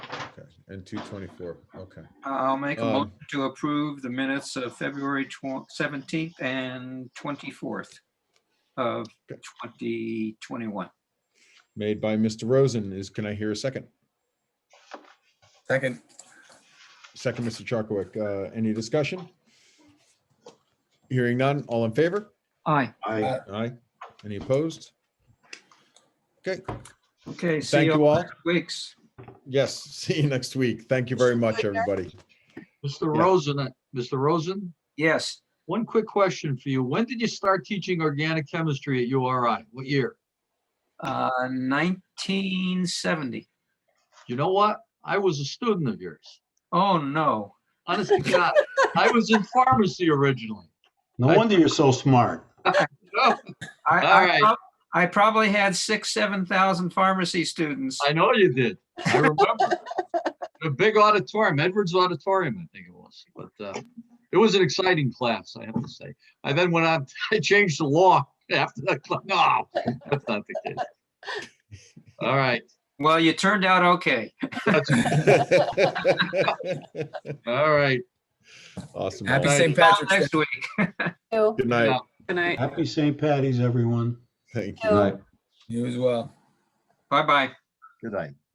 and two twenty-four, okay. I'll make a Um, motion to approve the minutes of February twen- 17th and 24th of 2021. Made by Mr. Rosen is, can I hear a second? Second, Second, Mr. Charkowik, uh, any discussion? Hearing none, all in favor? Aye. Aye. Aye. Any opposed? Okay, Okay, see thank you you all all. next weeks. Yes, see you next week. Thank you very much, everybody. Mr. Yeah. Rosen, uh, Mr. Rosen, Yes, one quick question for you. When did you start teaching organic chemistry at URI? What year? uh, 1970. You know what? I was a student of yours. Oh, no. Honest to God, I was in pharmacy originally. No I- wonder you're so smart. Oh, I- All I right. prob- I probably had six, 7,000 pharmacy students. I know you did. I remember. The big auditorium, Edwards Auditorium, I think it was. But uh, it was an exciting class, I have to say. I then went on, I changed the law after that. cla- No, that's not the case. All right. Well, you turned out okay. that's- All right. Awesome. happy all. Aye. St. See you all Patrick's Day. Next week. you. Good night. Good night. Happy St. Patty's, everyone. Thank you. Good night. You as well. Bye-bye. Good night.